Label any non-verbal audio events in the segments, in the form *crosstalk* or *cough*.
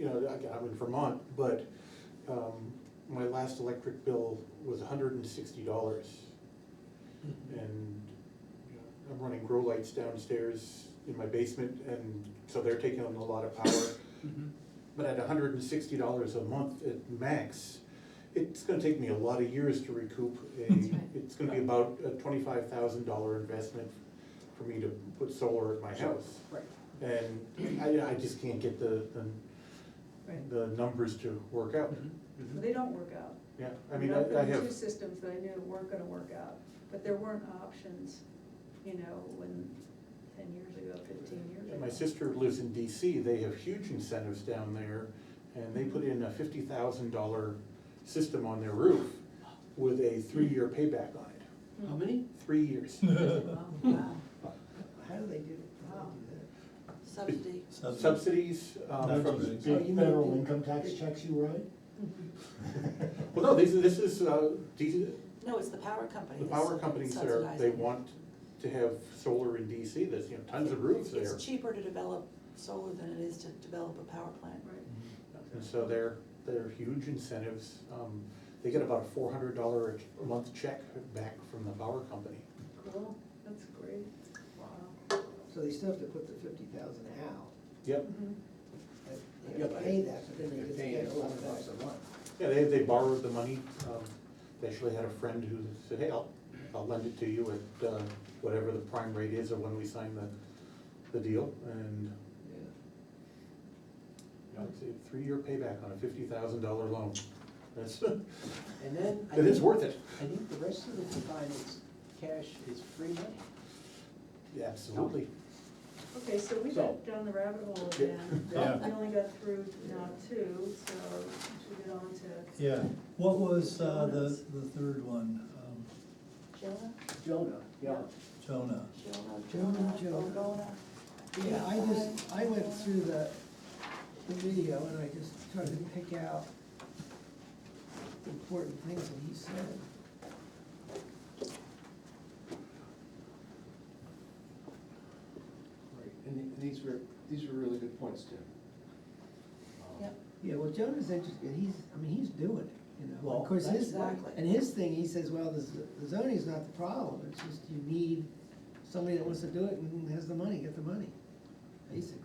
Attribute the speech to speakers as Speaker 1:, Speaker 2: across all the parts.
Speaker 1: I'm in Vermont, but, um, my last electric bill was hundred and sixty dollars. And you know, I'm running grow lights downstairs in my basement, and so they're taking on a lot of power.
Speaker 2: Mhm.
Speaker 1: But at hundred and sixty dollars a month at max, it's gonna take me a lot of years to recoup. a-
Speaker 3: That's right.
Speaker 1: It's gonna be about a twenty-five thousand dollar investment for me to put solar at my house.
Speaker 2: Right,
Speaker 1: And I, I just can't get the,
Speaker 3: Right. Mm-hmm.
Speaker 1: the, the numbers to work out.
Speaker 2: Mhm, mhm.
Speaker 3: Well, They don't work out.
Speaker 1: Yeah, I mean,
Speaker 3: You know,
Speaker 1: I I
Speaker 3: there were
Speaker 1: have,
Speaker 3: Two systems that I knew weren't gonna work out, but there weren't options, you know, when, ten years ago, fifteen years ago.
Speaker 1: my sister lives in DC, they have huge incentives down there, and they put in a fifty thousand dollar system on their roof with a three-year payback on it,
Speaker 3: Hmm.
Speaker 2: How
Speaker 4: *laughs*
Speaker 2: many?
Speaker 1: three years.
Speaker 3: Wow, *laughs*
Speaker 2: *laughs*
Speaker 3: wow.
Speaker 4: How do they do, how
Speaker 3: Wow.
Speaker 4: do they
Speaker 5: Subsidy.
Speaker 1: Subsidies, um, from
Speaker 6: Subsidies.
Speaker 4: do that? So
Speaker 1: big
Speaker 4: Oh, you
Speaker 1: federal
Speaker 4: federal
Speaker 1: income.
Speaker 4: income tax checks you *laughs* write?
Speaker 1: Well, no, these, are- this is, uh, these,
Speaker 5: No, it's the power company.
Speaker 1: the
Speaker 5: that's
Speaker 1: power companies that are,
Speaker 5: subsidizing
Speaker 1: they
Speaker 5: it.
Speaker 1: want to have solar in DC, there's, you know, tons of roofs there.
Speaker 5: It's cheaper to develop solar than it is to develop a power plant.
Speaker 3: Right.
Speaker 4: Mm-hmm.
Speaker 1: And so they're, they're huge incentives. Um, They get about a four hundred dollar a month check back from the power company.
Speaker 3: Cool, that's great. Wow.
Speaker 4: So they still have to put the fifty thousand out,
Speaker 1: Yep,
Speaker 3: Mhm.
Speaker 4: but they gotta pay that, but then
Speaker 7: They're
Speaker 4: they
Speaker 7: paying
Speaker 4: get
Speaker 7: us
Speaker 4: a lot
Speaker 7: four bucks
Speaker 4: of
Speaker 7: a month.
Speaker 1: yeah, they, they borrowed the money. Um, They actually had a friend who said, hey, I'll, I'll lend it to you at uh, whatever the prime rate is or when we sign the, the deal. And, you know, it's a three-year payback on a fifty thousand dollar loan. That's, *laughs*
Speaker 7: And then. I
Speaker 1: it is
Speaker 7: think-
Speaker 1: worth it.
Speaker 7: I think the rest of the time is cash is free money.
Speaker 1: Yeah, Absolutely.
Speaker 3: Okay, so we
Speaker 7: So-
Speaker 3: got down the rabbit hole
Speaker 1: Yeah.
Speaker 3: again.
Speaker 6: Yeah.
Speaker 3: We only got through now two, so we should get on to,
Speaker 6: Yeah, what was uh, the, the third one? Um,
Speaker 5: Jonah,
Speaker 7: Jonah, yeah.
Speaker 6: Jonah,
Speaker 5: Jonah, Jonah,
Speaker 4: Jonah, Jonah.
Speaker 5: Gorgona.
Speaker 4: Yeah, I just, I went through the, the video and I just tried to pick out the important things that he said.
Speaker 7: Right, and the- these were, these were really good points, Tim. Um,
Speaker 5: Yep.
Speaker 4: Yeah, well, Jonah's interesting, he's, I mean, he's doing it, you know,
Speaker 7: Well,
Speaker 4: of course, his,
Speaker 5: exactly.
Speaker 4: and his thing, he says, well, the z- the zoning's not the problem, it's just you need somebody that wants to do it and has the money, get the money, basically.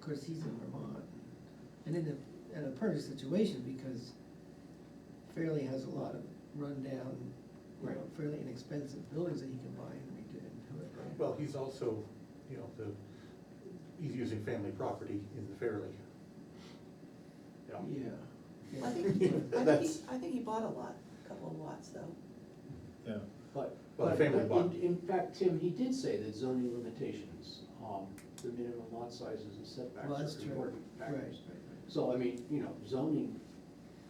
Speaker 4: Of course, he's in Vermont, and in a, in a perfect situation, because Fairleigh has a lot of rundown, you know,
Speaker 7: Right.
Speaker 4: fairly inexpensive buildings that he can buy and redo and do it, right?
Speaker 1: Well, he's also, you know, the, he's using family property in the Fairleigh. Yeah.
Speaker 4: Yeah.
Speaker 5: I
Speaker 4: Yeah.
Speaker 5: think,
Speaker 4: *laughs*
Speaker 5: he- I think he,
Speaker 1: That's-
Speaker 5: I think he bought a lot, a couple of lots though.
Speaker 6: yeah.
Speaker 7: But.
Speaker 1: Well, the
Speaker 7: but-
Speaker 1: family
Speaker 7: but
Speaker 1: bond.
Speaker 7: In, in fact, Tim, he did say that zoning limitations, um, the minimum lot sizes and setbacks
Speaker 4: Well, that's
Speaker 7: are
Speaker 4: true,
Speaker 7: important
Speaker 4: right,
Speaker 7: factors.
Speaker 4: right, right.
Speaker 7: So, I mean, you know, zoning,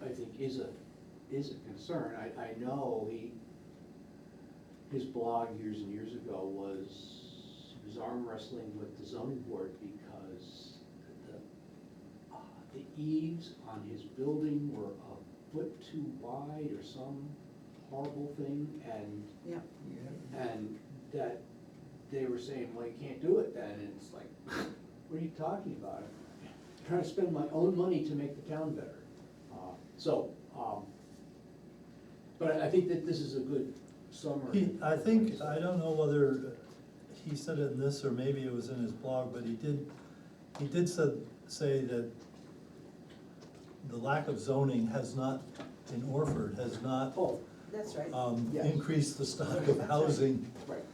Speaker 7: I think, is a, is a concern. I, I know he, his blog years and years ago was, he was arm wrestling with the zoning board because the, uh, the eaves on his building were a foot too wide or some horrible thing, and,
Speaker 5: Yeah.
Speaker 4: Yeah.
Speaker 7: and that they were saying, well, you can't do it then, and it's like, what are you talking about? I'm Trying to spend my own money to make the town better. Uh, So, um, but I I think that this is a good summary.
Speaker 6: He, I think, I don't know whether he said it in this or maybe it was in his blog, but he did, he did said, say that the lack of zoning has not, in Orford, has not
Speaker 7: Oh,
Speaker 5: That's right.
Speaker 6: um,
Speaker 7: yes.
Speaker 6: increased the stock of housing
Speaker 7: right,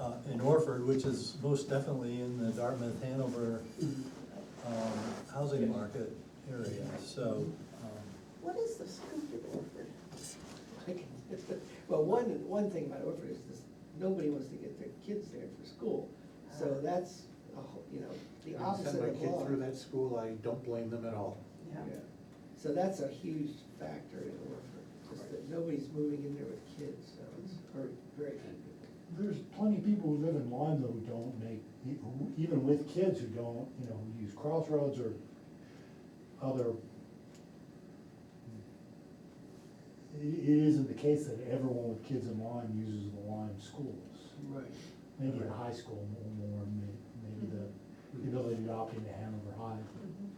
Speaker 6: uh, in Orford, which is most definitely in the Dartmouth, Hanover, um, housing
Speaker 7: Yes.
Speaker 6: market area, so, um,
Speaker 5: What is the scoop with Orford?
Speaker 4: *laughs* Well, one, one thing about Orford is this, nobody wants to get their kids there for school, so
Speaker 5: Ah.
Speaker 4: that's, a whole- you know, the
Speaker 1: I
Speaker 4: opposite
Speaker 1: Send my
Speaker 4: of
Speaker 1: kid
Speaker 4: law.
Speaker 1: through that school, I don't blame them at all.
Speaker 5: Yeah.
Speaker 4: Yeah. So that's a huge factor in Orford, just that nobody's moving in there with kids, so it's
Speaker 5: Mm-hmm.
Speaker 4: very, very.
Speaker 8: There's plenty of people who live in Lonzo who don't make, who- even with kids who don't, you know, use crossroads or other. It, it isn't the case that everyone with kids in Lyme uses the Lyme schools.
Speaker 4: Right.
Speaker 8: Maybe in high school more, more, may- maybe the the ability to opt into Hanover High.